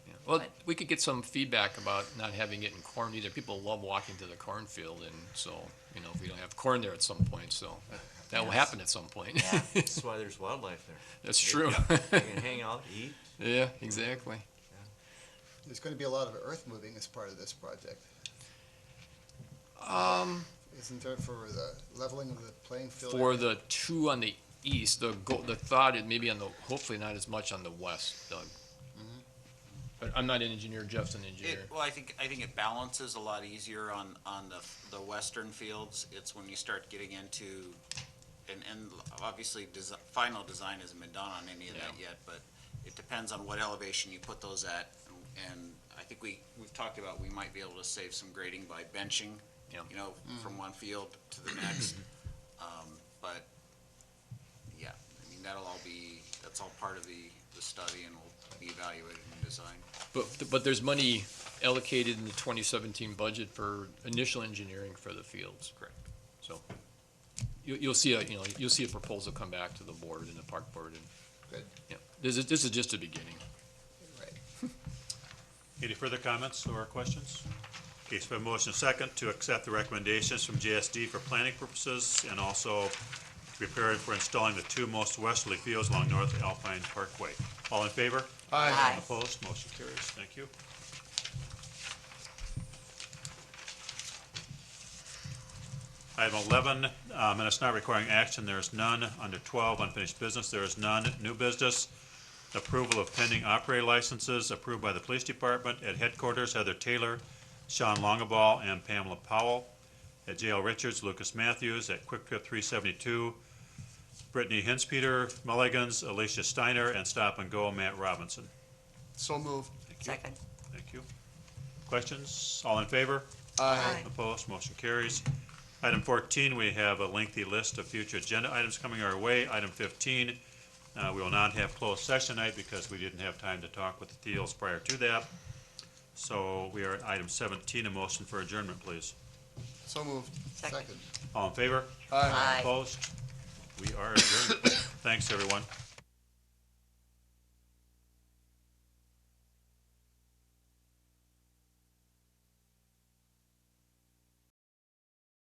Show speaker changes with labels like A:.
A: Well,
B: But-
A: we could get some feedback about not having it in corn either. People love walking to the cornfield and so, you know, if we don't have corn there at some point, so that- that will
B: Yes.
A: happen at some point.
C: That's why there's wildlife there.
A: That's true.
C: You can hang out, eat.
A: Yeah, exactly.
D: There's going to be a lot of earth moving as part of this project,
A: Um,
D: isn't there, for the leveling of the playing field?
A: for
D: area?
A: the two on the east, the go, the thought is maybe on the, hopefully not as much on the west, Doug. But I'm not an engineer, Jeff's an
E: It,
A: engineer.
E: well, I think, I think it balances a lot easier on, on the, the western fields. It's when you start getting into, and, and obviously, desi final design hasn't been done on any of that yet, but it depends on what elevation you put those at. And I think we, we've talked about, we might be able to save some grading by benching,
A: Yeah.
E: you know, from one field to the next. Um, But, yeah, I mean, that'll all be, that's all part of the, the study and will be evaluated in design.
A: But, but there's money allocated in the twenty seventeen budget for initial engineering for the fields.
E: Correct.
A: So, you, you'll see a, you know, you'll see a proposal come back to the board and the park board and.
D: Good.
A: Yeah, this is, this is just the beginning.
D: Right.
F: Any further comments or questions? Okay, so we have a motion second to accept the recommendations from JSD for planning purposes and also preparing for installing the two most westerly fields along North Alpine Parkway. All in favor?
B: Aye.
F: Opposed? Motion carries. Thank you. Item eleven, um, and it's not requiring action. There is none. Under twelve, unfinished business, there is none. New business, approval of pending operator licenses approved by the police department at headquarters, Heather Taylor, Sean Longaball, and Pamela Powell. At JL Richards, Lucas Matthews, at Quick Trip three seventy-two, Brittany Hinspeter, Mulligan's, Alicia Steiner, and Stop and Go, Matt Robinson.
G: So move.
F: Thank you.
B: Second.
F: Thank you. Questions? All in favor?
B: Aye.
F: Opposed, motion carries. Item fourteen, we have a lengthy list of future agenda items coming our way. Item fifteen, uh, we will not have closed session tonight because we didn't have time to talk with the Thiels prior to that. So we are at item seventeen, a motion for adjournment, please.
G: So moved.
B: Second.
F: All in favor?
B: Aye.
F: Opposed? We are adjourned. Thanks, everyone.